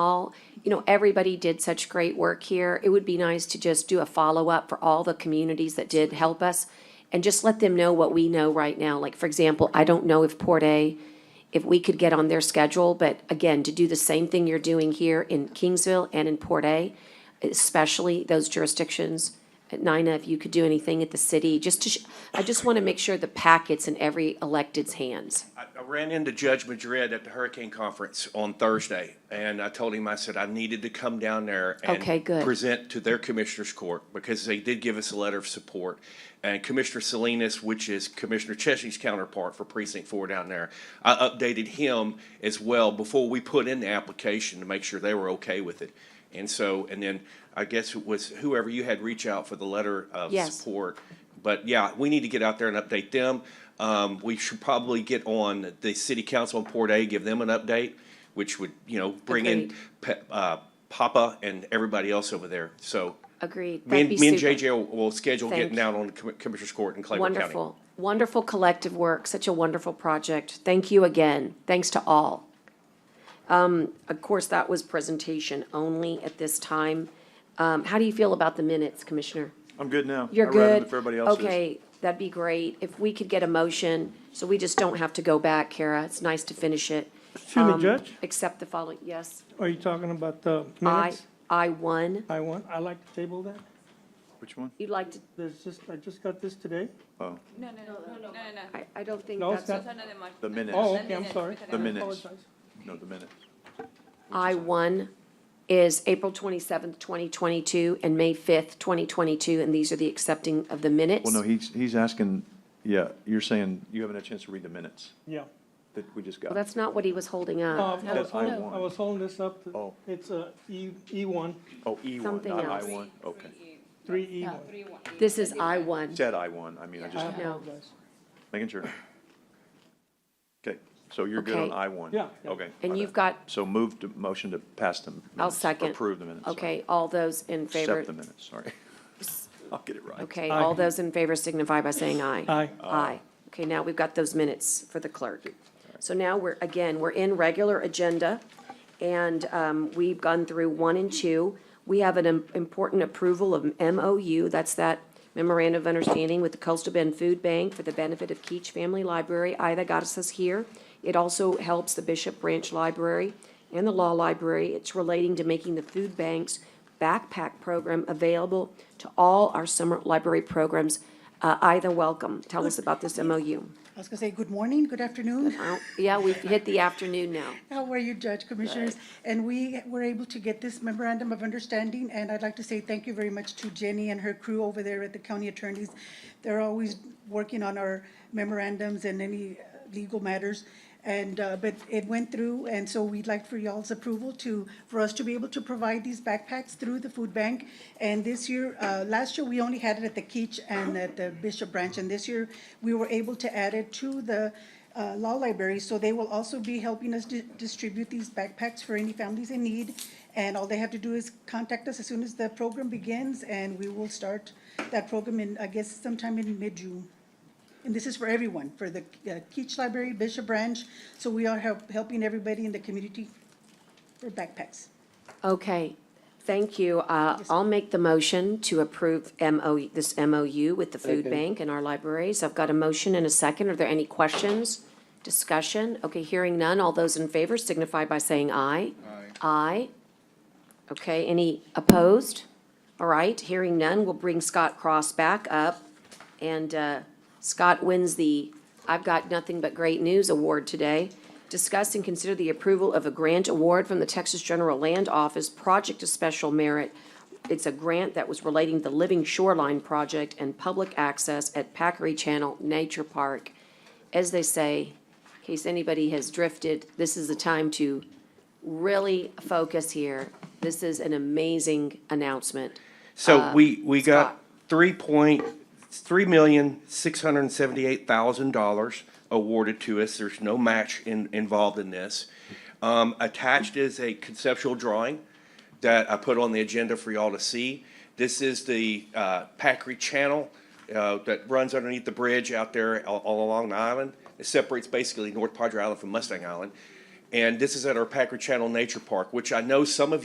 all, you know, everybody did such great work here. It would be nice to just do a follow-up for all the communities that did help us and just let them know what we know right now. Like, for example, I don't know if Port A, if we could get on their schedule, but again, to do the same thing you're doing here in Kingsville and in Port A, especially those jurisdictions. Nina, if you could do anything at the city, just to, sh- I just want to make sure the packet's in every elected's hands. I, I ran into Judge Madrid at the hurricane conference on Thursday, and I told him, I said, I needed to come down there and Okay, good. present to their commissioners court, because they did give us a letter of support. And Commissioner Salinas, which is Commissioner Chesney's counterpart for precinct four down there, I updated him as well before we put in the application to make sure they were okay with it. And so, and then I guess it was whoever you had reach out for the letter of Yes. support support. But yeah, we need to get out there and update them. Um, we should probably get on the city council on Port A, give them an update, which would, you know, bring in Agreed. Pe- uh, Papa and everybody else over there. So Agreed. me That'd and, be me and super. JJ will, will schedule Thank getting you. out on Com- Commissioner's Court in Clayton County. Wonderful, wonderful collective work, such a wonderful project. Thank you again. Thanks to all. Um, Of course, that was presentation only at this time. Um, How do you feel about the minutes, Commissioner? I'm good now. You're I good? rather than if everybody else is. Okay, that'd be great. If we could get a motion, so we just don't have to go back, Kara. It's nice to finish it. Excuse Um, me, Judge, Except the following, yes. are you talking about the I, minutes? I one. I want, I like to table that. Which one? You'd like to, There's just, I just got this today. Oh, No, no, no, no, no, no, no. I, I don't think No, it's that's, not. Son de Mar- the minutes. Oh, The okay, I'm minutes, sorry. because I The don't- minutes. Apologize. No, the minutes. I one is April twenty-seventh, twenty twenty-two, and May fifth, twenty twenty-two, and these are the accepting of the minutes. Well, no, he's, he's asking, yeah, you're saying you haven't had a chance to read the minutes Yeah. that we just Well, got. that's not what he was holding No, up. I was That I holding, want. I was holding this up. to- Oh. It's a E, E one, Oh, E one, something not I else. one, okay. three E one. Three, one. This is I one. Said I one, I mean, I I just, No. apologize. making sure. Okay, so you're good on Okay. I one? Yeah, yeah. Okay. And my you've got- bad. So move to, motion to pass the minutes. I'll second. Approve the minutes. sorry. Okay, all those in favor, Accept the minutes, sorry. I'll get it right. okay, all Aye. those in favor signify by saying aye. Aye. Aye. Okay, now we've got those minutes for the clerk. So now we're, again, we're in regular agenda, and um, we've gone through one and two. We have an im- important approval of MOU, that's that memorandum of understanding with the Coastal Bend Food Bank for the benefit of Keach Family Library. Aye, that got us us here. It also helps the Bishop Branch Library and the Law Library. It's relating to making the food bank's backpack program available to all our summer library programs. Uh, Either welcome. Tell us about this MOU. I was gonna say, good morning, good afternoon. Well, Yeah, we've hit the afternoon now. How are you, Judge Commissioners? And we were able to get this memorandum of understanding, and I'd like to say thank you very much to Jenny and her crew over there at the county attorneys. They're always working on our memorandums and any uh, legal matters. And, uh, but it went through, and so we'd like for y'all's approval to, for us to be able to provide these backpacks through the food bank. And this year, uh, last year, we only had it at the Keach and at the Bishop Branch, and this year, we were able to add it to the uh, Law Library, so they will also be helping us di- distribute these backpacks for any families in need. And all they have to do is contact us as soon as the program begins, and we will start that program in, I guess, sometime in mid-June. And this is for everyone, for the uh, Keach Library, Bishop Branch, so we are help- helping everybody in the community for backpacks. Okay, thank you. Uh, I'll make the motion to approve MO, this MOU with the food bank and our libraries. I've got a motion and a second. Are there any questions? Discussion? Okay, hearing none. All those in favor signify by saying aye. Aye. Aye. Okay, any opposed? All right, hearing none. We'll bring Scott Cross back up. And uh, Scott wins the I've Got Nothing But Great News Award today. Discuss and consider the approval of a grant award from the Texas General Land Office, Project of Special Merit. It's a grant that was relating to the Living Shoreline Project and public access at Packery Channel Nature Park. As they say, in case anybody has drifted, this is the time to really focus here. This is an amazing announcement. So we, we got Scott. three point, three million, six hundred and seventy-eight thousand dollars awarded to us. There's no match in, involved in this. Um, attached is a conceptual drawing that I put on the agenda for y'all to see. This is the, uh, Packery Channel, uh, that runs underneath the bridge out there all, all along the island. It separates basically North Padre Island from Mustang Island. And this is at our Packard Channel Nature Park, which I know some of